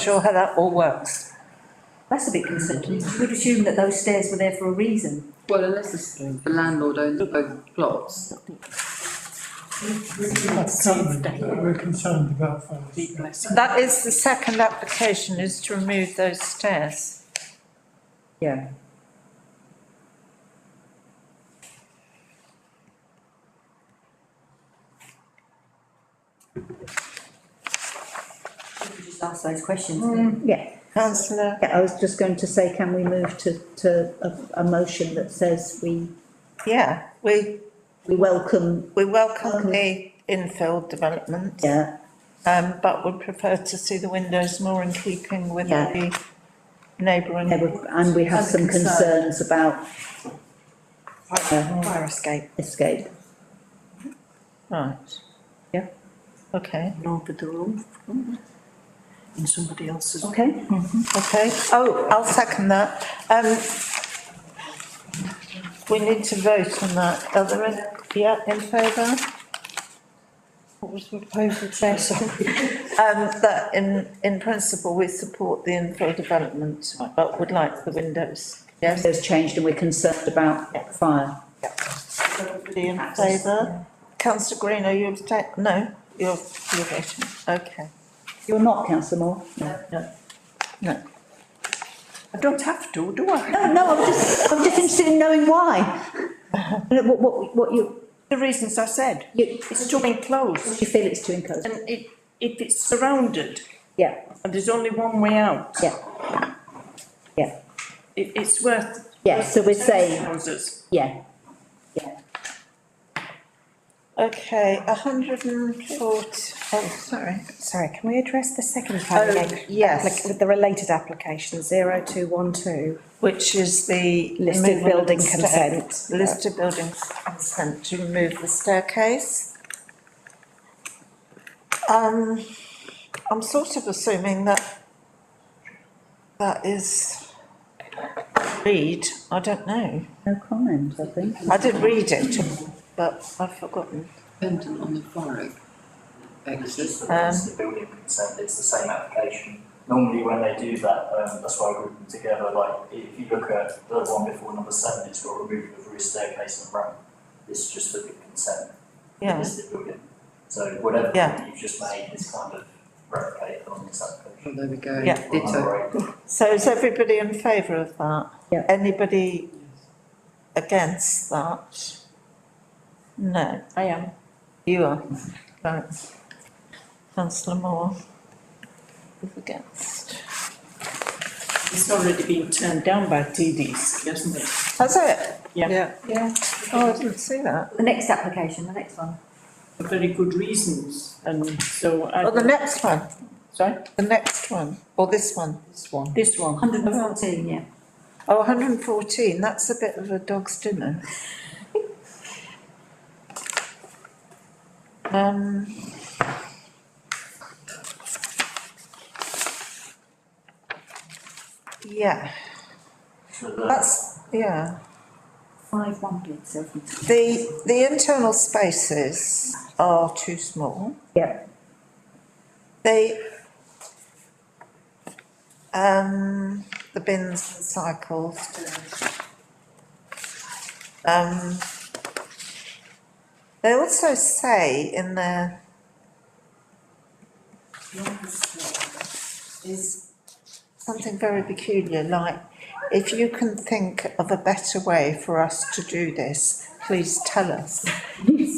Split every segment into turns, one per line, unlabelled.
sure how that all works.
That's a bit concerning. You would assume that those stairs were there for a reason.
Well, unless it's- the landlord owns both plots.
That's something that we're concerned about first.
That is the second application, is to remove those stairs.
Yeah. Just ask those questions.
Mm.
Yeah,
Councillor,
yeah, I was just going to say, can we move to, to a, a motion that says we,
yeah, we,
we welcome,
we welcome the infill development,
Um, yeah,
um, but would prefer to see the windows more in keeping with
Yeah.
the neighbouring.
and we- and we have some concerns about
Fire escape.
escape.
Right.
Yeah.
Okay,
Okay,
okay. Oh, I'll second that. Um, we need to vote on that. Are there any, yeah, in favour? What was the proposal, Chair, sorry? Um, that in, in principle, we support the infill development, but would like the windows. Yes,
those changed and we're concerned about fire.
everybody in favour? Councillor Green, are you abstaining? No, you're, you're voting, okay.
You're not councillor Moore? No,
No,
I don't have to, do I?
no, no, I'm just, I'm just interested in knowing why. What, what, what you,
The reasons I said,
you,
it's too enclosed
you feel it's too enclosed?
and it, if it's surrounded
Yeah,
and there's only one way out,
yeah. Yeah,
it, it's worth.
yeah, so we're
terrace
saying,
Houses.
yeah, yeah.
Okay, a hundred and forty, oh, sorry.
Sorry, can we address the second
Oh,
planning?
yes,
With the related application, zero two one two,
which is the.
listed
removal of
building
the stair-
consent.
Listed building consent to remove the staircase. Um, I'm sort of assuming that that is read, I don't know.
No comment, I think.
I did read it, but I've forgotten.
Dependent on the fire exit.
Um,
It's the building consent, it's the same application. Normally when they do that, um, that's why I group them together, like, if you look at the one before number seven, it's got removal of roof staircase and ramp. It's just for the consent,
Yeah,
it's the building. So whatever
Yeah.
point you've just made is kind of replicated on this
Oh,
application.
there we go.
Yeah.
Well,
Ditto.
number eight.
so is everybody in favour of that?
Yeah.
Anybody against that? No.
I am.
You are, right. Councillor Moore. Is against.
It's already been turned down by TDs, hasn't it?
Has it?
Yeah.
Yeah.
Oh, I didn't see that.
The next application, the next one.
For very good reasons and so I.
Oh, the next one,
Sorry,
the next one, or this one? This one.
this one.
Hundred and fourteen, yeah.
Oh, 114, that's a bit of a dog's dinner. Um. Yeah,
So the-
that's, yeah.
Five one bid, so. if you-
The, the internal spaces are too small.
Yeah.
They, um, the bins and cycles. Um, they also say in their is something very peculiar, like, if you can think of a better way for us to do this, please tell us.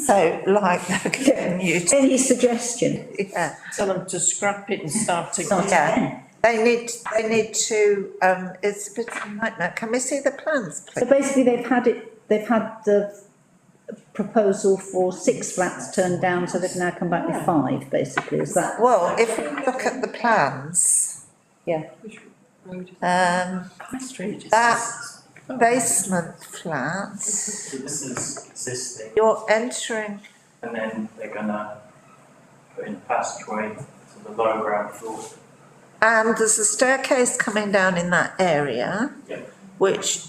So like, they're getting you to,
Any suggestion?
yeah.
Tell them to scrap it and start again.
Yeah, they need, they need to, um, it's a bit of a nightmare. Can we see the plans,
So
please?
basically, they've had it, they've had the proposal for six flats turned down, so they've now come back with five, basically, is that?
Well, if we look at the plans, um,
High Street.
that basement flat,
So this is existing,
you're entering,
and then they're gonna put in a passageway to the lower ground floor.
and there's a staircase coming down in that area,
Yeah.
which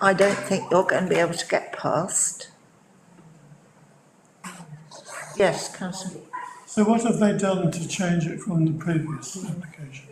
I don't think you're going to be able to get past. Yes, councillor.
So what have they done to change it from the previous application?